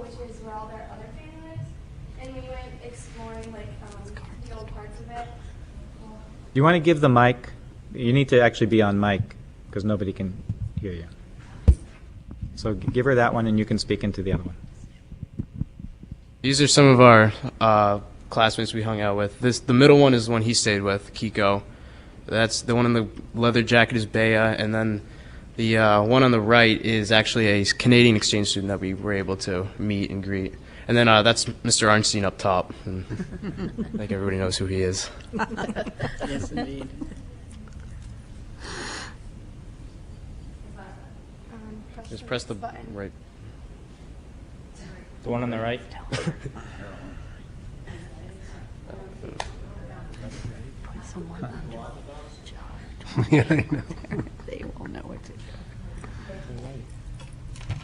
is where all their other family lives. And we went exploring like um, the old parts of it. You want to give the mic? You need to actually be on mic because nobody can hear you. So g- give her that one and you can speak into the other one. These are some of our uh, classmates we hung out with. This the middle one is the one he stayed with, Kiko. That's the one in the leather jacket is Bea, and then the uh, one on the right is actually a Canadian exchange student that we were able to meet and greet. And then uh, that's Mr. Arnstein up top. And I think everybody knows who he is. Yes, indeed. Um, press Just press the button. right. The one on the right? Someone under They will know what to do.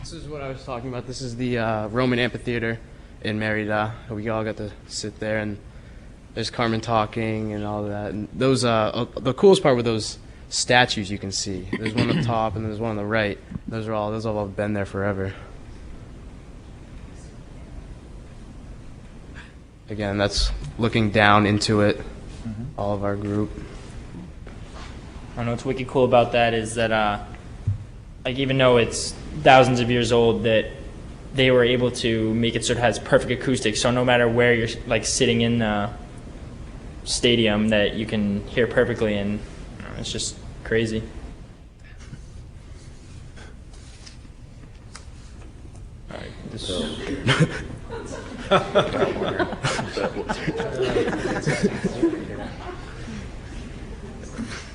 This is what I was talking about. This is the uh, Roman amphitheater in Merida. We all got to sit there, and there's Carmen talking and all that. And those, uh, uh, the coolest part were those statues you can see. There's one on top, and there's one on the right. Those are all. Those have all been there forever. Again, that's looking down into it. All of our group. I don't know what's wicked cool about that is that, uh, like, even though it's thousands of years old, that they were able to make it so it has perfect acoustics. So no matter where you're, like, sitting in the stadium, that you can hear perfectly, and you know, it's just crazy. All right, this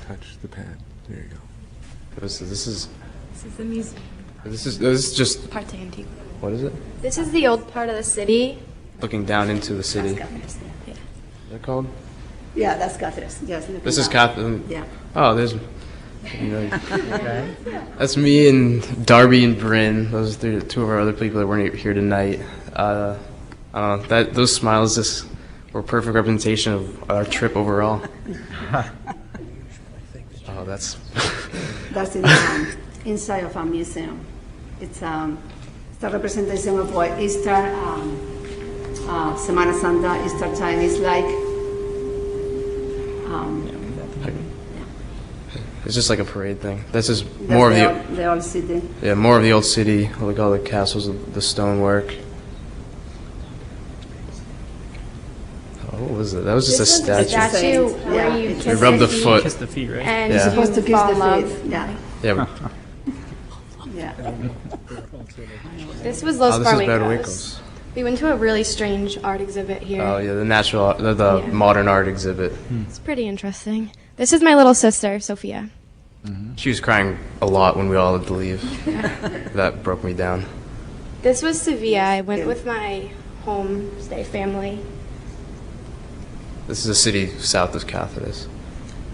Touch the pad. There you go. This is. This is. This is the music This is, this is just. part to Antigua. What is it? This is the old part of the city. Looking down into the city. Is that called? Yeah, that's Cáceres, yes. looking This is down. Catherine. Yeah. Oh, there's. you know, That's me and Darby and Bryn. Those are the two of our other people that weren't here tonight. Uh, I don't know, that those smiles just were perfect representation of our trip overall. oh, that's. That's in, um, inside of a museum. It's, um, it's a representation of what Easter, um, uh, Semana Santa, Easter time is like. Um, it's just like a parade thing. That's just more of the that's The old city. yeah, more of the old city. Like all the castles, the stonework. Oh, what was it? That was just a statue. statue where you We rubbed the foot. kiss the feet, right? and Yeah. Supposed to kiss the feet, yeah, Yeah. yeah. This was Oh, Los this is Barwinkos. Bad Winkles. We went to a really strange art exhibit here. Oh yeah, the natural, the, the Yeah. modern art exhibit. It's pretty interesting. This is my little sister, Sophia. She was crying a lot when we all had to leave. that broke me down. This was Sevilla. I went with my homestay family. This is a city south of Cáceres.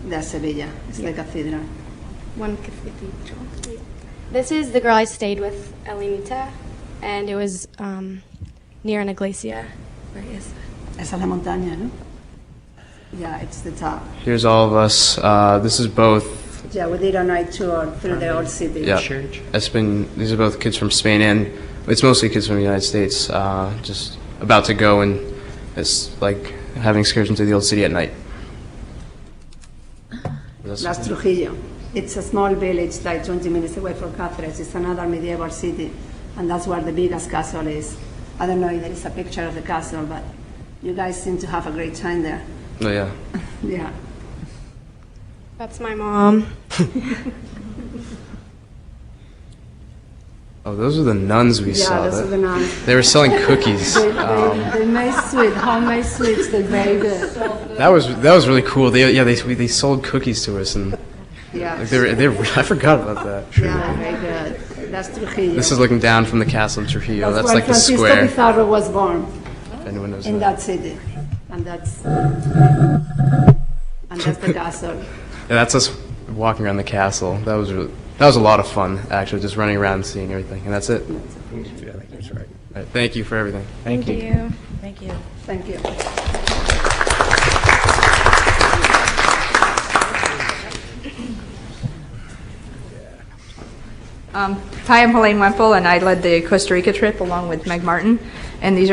That's Sevilla, it's the cathedral. One cathedral. This is the girl I stayed with, Elenita, and it was um, near an iglesia. Where is that? Esa es la montaña, no? Yeah, it's the top. Here's all of us. Uh, this is both. Yeah, we did a night tour through the old city. Yeah, Church. it's been. These are both kids from Spain and it's mostly kids from the United States. Uh, just about to go and it's like having excursions to the old city at night. That's- Las Trujillo. It's a small village, like 20 minutes away from Cáceres. It's another medieval city, and that's where the biggest castle is. I don't know if there is a picture of the castle, but you guys seem to have a great time there. Oh yeah. Yeah. That's my mom. Oh, those are the nuns we saw. yeah, those That- um, are the nuns. They were selling cookies. Uh, They, they, they made sweet, homemade sweets. They're very good. That was that was really cool. They yeah they we, they sold cookies to us and Yeah. like they were, they were, I forgot about that. Yeah, very good. That's Trujillo. This is looking down from the castle in Trujillo. That's where like the Francisco square. If Pizarro was born anyone knows in that. that city, and that's and that's the castle. Yeah, that's us walking around the castle. That was really, that was a lot of fun actually, just running around and seeing everything. And that's it. All right, thank you for everything. Thank, you. Thank you. Um, Hi, I'm Helene Wemple, and I led the Costa Rica trip along with Meg Martin, and these are.